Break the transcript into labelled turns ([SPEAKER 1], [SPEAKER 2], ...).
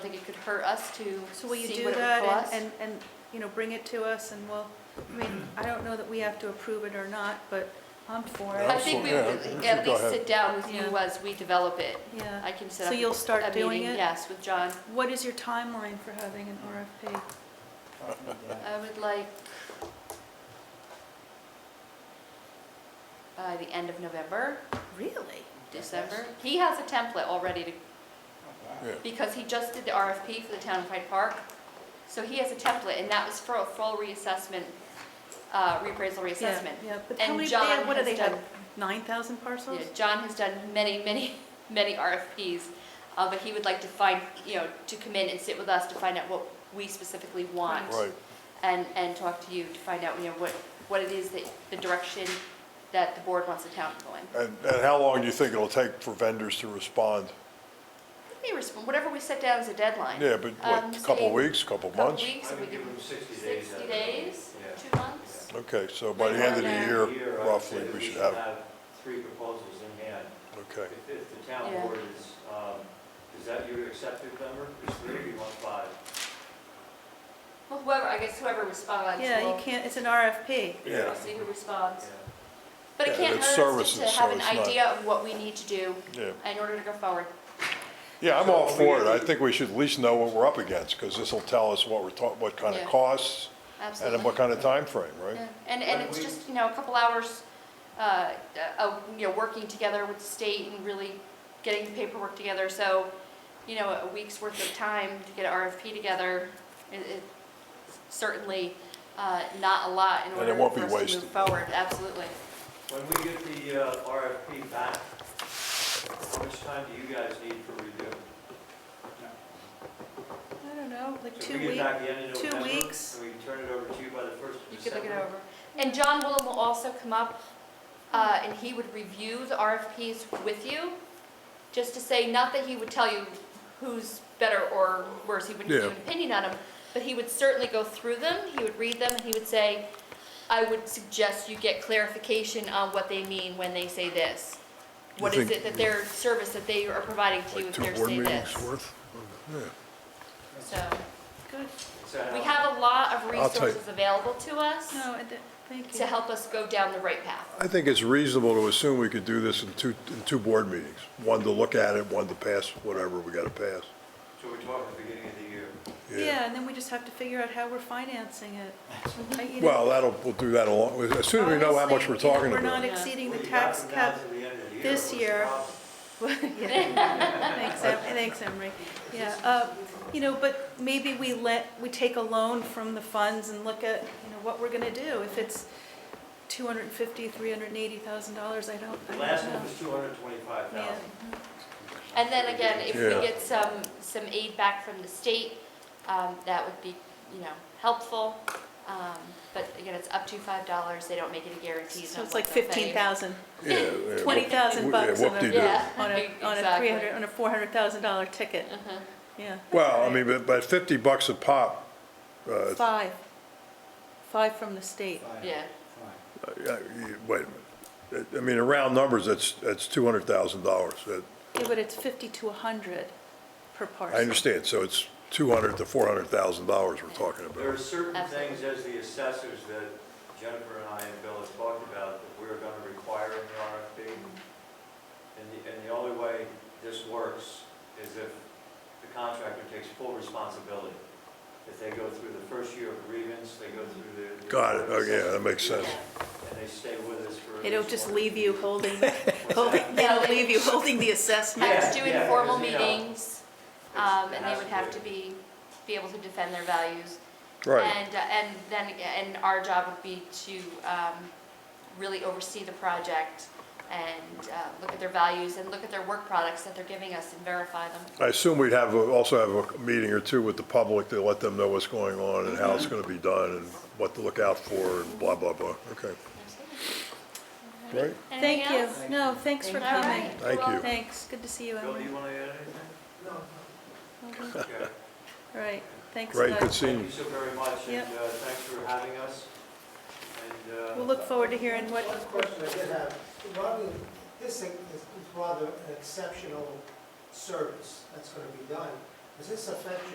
[SPEAKER 1] think it could hurt us to
[SPEAKER 2] So will you
[SPEAKER 1] see
[SPEAKER 2] do
[SPEAKER 1] what it would
[SPEAKER 2] that
[SPEAKER 1] cost.
[SPEAKER 2] and, and, and, you know, bring it to us and we'll, I mean, I don't know that we have to approve it or not, but I'm for
[SPEAKER 1] I
[SPEAKER 2] it.
[SPEAKER 1] think we
[SPEAKER 3] Yeah,
[SPEAKER 1] would
[SPEAKER 3] we
[SPEAKER 1] at
[SPEAKER 3] should go
[SPEAKER 1] least
[SPEAKER 3] ahead.
[SPEAKER 1] sit down with you
[SPEAKER 2] Yeah.
[SPEAKER 1] as we develop it.
[SPEAKER 2] Yeah.
[SPEAKER 1] I can set
[SPEAKER 2] So
[SPEAKER 1] up
[SPEAKER 2] you'll start
[SPEAKER 1] a
[SPEAKER 2] doing
[SPEAKER 1] meeting,
[SPEAKER 2] it?
[SPEAKER 1] Yes, with John.
[SPEAKER 2] What is your timeline for having an RFP?
[SPEAKER 1] I would like uh, the end of November,
[SPEAKER 2] Really?
[SPEAKER 1] December. He has a template all ready to,
[SPEAKER 3] Yeah.
[SPEAKER 1] because he just did the RFP for the town of Hyde Park. So he has a template, and that was for a full reassessment, uh, reappraisal
[SPEAKER 2] Yeah,
[SPEAKER 1] reassessment.
[SPEAKER 2] Yeah, but how
[SPEAKER 1] And
[SPEAKER 2] many, they
[SPEAKER 1] John
[SPEAKER 2] have- what do
[SPEAKER 1] has
[SPEAKER 2] they have,
[SPEAKER 1] done-
[SPEAKER 2] nine thousand
[SPEAKER 1] You
[SPEAKER 2] parcels?
[SPEAKER 1] know, John has done many, many, many RFPs, uh, but he would like to find, you know, to come in and sit with us to find out what we specifically want.
[SPEAKER 3] Right,
[SPEAKER 1] and, and talk to you to find out, you know, what, what it is that, the direction that the board wants the town to go in.
[SPEAKER 3] and, and how long do you think it'll take for vendors to respond?
[SPEAKER 1] They respond, whatever we set down as a deadline.
[SPEAKER 3] Yeah, but
[SPEAKER 1] Um,
[SPEAKER 3] what, a couple
[SPEAKER 1] say-
[SPEAKER 3] weeks, couple
[SPEAKER 1] Couple
[SPEAKER 3] months?
[SPEAKER 1] weeks,
[SPEAKER 4] I
[SPEAKER 1] if we
[SPEAKER 4] would give
[SPEAKER 1] can,
[SPEAKER 4] them 60 days.
[SPEAKER 1] sixty
[SPEAKER 4] out of it.
[SPEAKER 1] days,
[SPEAKER 4] Yeah.
[SPEAKER 1] two months?
[SPEAKER 3] Okay, so by the end of
[SPEAKER 1] Yeah.
[SPEAKER 3] the year,
[SPEAKER 4] I would
[SPEAKER 3] roughly,
[SPEAKER 4] say that
[SPEAKER 3] we should have,
[SPEAKER 4] three proposals in hand.
[SPEAKER 3] okay.
[SPEAKER 4] If, if the town
[SPEAKER 1] Yeah.
[SPEAKER 4] board is, um, is that your accepted number? Is three or you want five?
[SPEAKER 1] Well, whoever, I guess whoever responds,
[SPEAKER 2] Yeah, you
[SPEAKER 1] will
[SPEAKER 2] can't, it's an RFP.
[SPEAKER 1] we'll
[SPEAKER 3] Yeah.
[SPEAKER 1] see who responds.
[SPEAKER 4] Yeah.
[SPEAKER 1] But
[SPEAKER 3] Yeah,
[SPEAKER 1] it can't
[SPEAKER 3] it's
[SPEAKER 1] hurt us to
[SPEAKER 3] services,
[SPEAKER 1] have
[SPEAKER 3] so
[SPEAKER 1] an
[SPEAKER 3] it's not-
[SPEAKER 1] idea of what we need to do
[SPEAKER 3] Yeah,
[SPEAKER 1] in order to go forward.
[SPEAKER 3] yeah, I'm all
[SPEAKER 4] So
[SPEAKER 3] for it.
[SPEAKER 4] we-
[SPEAKER 3] I think we should at least know what we're up against, because this'll tell us what we're talking, what kind of
[SPEAKER 1] Yeah.
[SPEAKER 3] costs, and then
[SPEAKER 1] Absolutely.
[SPEAKER 3] what kind of time frame, right?
[SPEAKER 1] Yeah, And, and
[SPEAKER 4] When
[SPEAKER 1] it's
[SPEAKER 4] we-
[SPEAKER 1] just, you know, a couple hours, uh, of, you know, working together with the state and really getting the paperwork together. So, you know, a week's worth of time to get an RFP together, it, it certainly, uh, not a lot in
[SPEAKER 3] And it
[SPEAKER 1] order
[SPEAKER 3] won't
[SPEAKER 1] for
[SPEAKER 3] be
[SPEAKER 1] us to move
[SPEAKER 3] wasted.
[SPEAKER 1] forward, absolutely.
[SPEAKER 4] When we get the uh, RFP back, how much time do you guys need for review?
[SPEAKER 2] I don't know, like
[SPEAKER 4] So
[SPEAKER 2] two
[SPEAKER 4] if we get
[SPEAKER 2] weeks.
[SPEAKER 4] back the end of
[SPEAKER 2] two
[SPEAKER 4] November,
[SPEAKER 2] weeks.
[SPEAKER 4] And we can turn it over to you by the first
[SPEAKER 1] You
[SPEAKER 4] of
[SPEAKER 1] could look it
[SPEAKER 4] December?
[SPEAKER 1] over. And John Willem will also come up, uh, and he would review the RFPs with you, just to say, not that he would tell you who's better or worse, he wouldn't give you an
[SPEAKER 3] Yeah.
[SPEAKER 1] opinion on them, but he would certainly go through them, he would read them, and he would say, I would suggest you get clarification on what they mean when they say this.
[SPEAKER 3] You
[SPEAKER 1] What is
[SPEAKER 3] think-
[SPEAKER 1] it that their service that they are providing to you
[SPEAKER 3] Like
[SPEAKER 1] if
[SPEAKER 3] two
[SPEAKER 1] they're
[SPEAKER 3] board
[SPEAKER 1] saying
[SPEAKER 3] meetings
[SPEAKER 1] this?
[SPEAKER 3] worth? Yeah.
[SPEAKER 1] So,
[SPEAKER 2] Good,
[SPEAKER 4] Is that
[SPEAKER 1] we
[SPEAKER 4] how-
[SPEAKER 1] have a lot of
[SPEAKER 3] I'll take-
[SPEAKER 1] resources available to us
[SPEAKER 2] no, I d- thank you.
[SPEAKER 1] to help us go down the right path.
[SPEAKER 3] I think it's reasonable to assume we could do this in two, in two board meetings. One to look at it, one to pass whatever we gotta pass.
[SPEAKER 4] So we're talking the beginning of the year.
[SPEAKER 2] Yeah, and then we just have to figure out how we're financing it.
[SPEAKER 1] Mm-hmm.
[SPEAKER 2] I- you know,
[SPEAKER 3] Well, that'll, we'll do that along, as soon as we know how much
[SPEAKER 2] obviously, you
[SPEAKER 3] we're
[SPEAKER 2] know,
[SPEAKER 3] talking
[SPEAKER 2] We're not
[SPEAKER 3] about.
[SPEAKER 1] Yeah.
[SPEAKER 2] exceeding the
[SPEAKER 4] Well, you got
[SPEAKER 2] tax
[SPEAKER 4] from now
[SPEAKER 2] cap.
[SPEAKER 4] to the end of the year,
[SPEAKER 2] this
[SPEAKER 4] what's the
[SPEAKER 2] year.
[SPEAKER 4] problem?
[SPEAKER 2] Well, yeah. Thanks, Em- thanks, Emery. Yeah, uh, you know, but maybe we let, we take a loan from the funds and look at, you know, what we're gonna do. If it's two hundred and fifty, three hundred and eighty thousand dollars, I don't, I
[SPEAKER 4] The
[SPEAKER 2] don't
[SPEAKER 4] last one
[SPEAKER 2] know.
[SPEAKER 4] was two hundred twenty-five
[SPEAKER 2] Yeah.
[SPEAKER 4] thousand.
[SPEAKER 1] And then again, if
[SPEAKER 3] Yeah.
[SPEAKER 1] we get some, some aid back from the state, um, that would be, you know, helpful. Um, But again, it's up to five dollars, they don't make any guarantees
[SPEAKER 2] So
[SPEAKER 1] on
[SPEAKER 2] it's
[SPEAKER 1] what
[SPEAKER 2] like
[SPEAKER 1] they'll pay.
[SPEAKER 2] fifteen thousand
[SPEAKER 3] Yeah, yeah, whoop-
[SPEAKER 2] 20,000
[SPEAKER 3] yeah,
[SPEAKER 2] bucks on a-
[SPEAKER 3] whoop-de-doo.
[SPEAKER 1] Yeah.
[SPEAKER 2] on a, on a
[SPEAKER 1] exactly.
[SPEAKER 2] three hundred, on a four hundred thousand dollar ticket. Yeah,
[SPEAKER 3] Well, I mean, but, but fifty bucks a pop, uh,
[SPEAKER 2] five, five from the state.
[SPEAKER 1] Yeah,
[SPEAKER 3] uh, you- wait a minute. I mean, in round numbers, that's, that's two hundred thousand dollars.
[SPEAKER 2] Yeah, but it's fifty to a hundred per parcel.
[SPEAKER 3] I understand, so it's two hundred to four hundred thousand dollars we're talking
[SPEAKER 4] There are
[SPEAKER 3] about.
[SPEAKER 4] certain
[SPEAKER 1] Absolutely.
[SPEAKER 4] things as the assessors that Jennifer and I and Bill have talked about that we're gonna require in the RFP. And the, and the only way this works is if the contractor takes full responsibility. If they go through the first year of grievance, they go through the. the
[SPEAKER 3] Got it. Okay, yeah, that makes
[SPEAKER 1] yeah.
[SPEAKER 3] sense.
[SPEAKER 4] And they stay with us for. at
[SPEAKER 2] They don't
[SPEAKER 4] least
[SPEAKER 2] just
[SPEAKER 4] one-
[SPEAKER 2] leave you holding,
[SPEAKER 4] What's
[SPEAKER 2] holding,
[SPEAKER 4] that?
[SPEAKER 2] they don't leave you holding the assessment.
[SPEAKER 1] I was
[SPEAKER 4] Yeah,
[SPEAKER 1] doing
[SPEAKER 4] yeah,
[SPEAKER 1] formal
[SPEAKER 4] because, you know,
[SPEAKER 1] meetings, um,
[SPEAKER 4] It
[SPEAKER 1] and they
[SPEAKER 4] has
[SPEAKER 1] would have to be, be able to defend their values.
[SPEAKER 3] Right,
[SPEAKER 1] And, uh, and then, aga- and our job would be to um, really oversee the project and uh, look at their values and look at their work products that they're giving us and verify them.
[SPEAKER 3] I assume we'd have, a- also have a meeting or two with the public to let them know what's going on and how it's gonna be done and what to look out for and blah, blah, blah. Okay, great,
[SPEAKER 2] Thank
[SPEAKER 1] Anything
[SPEAKER 2] you.
[SPEAKER 1] else?
[SPEAKER 2] No, thanks for
[SPEAKER 1] All right.
[SPEAKER 2] coming.
[SPEAKER 3] thank
[SPEAKER 1] Well,
[SPEAKER 3] you.
[SPEAKER 2] Thanks, good to see you,
[SPEAKER 4] Bill, do
[SPEAKER 2] Emily.
[SPEAKER 4] you wanna add anything?
[SPEAKER 2] All
[SPEAKER 4] Okay.
[SPEAKER 2] right, thanks,
[SPEAKER 3] Great, good
[SPEAKER 2] Doug.
[SPEAKER 3] seeing
[SPEAKER 4] Thank
[SPEAKER 3] you.
[SPEAKER 4] you so very much,
[SPEAKER 2] Yep.
[SPEAKER 4] and uh, thanks for having us. And, uh,
[SPEAKER 2] We'll look forward to hearing what,
[SPEAKER 5] One question I did have, rather, this thing is is rather an exceptional service that's going to be done. does this affect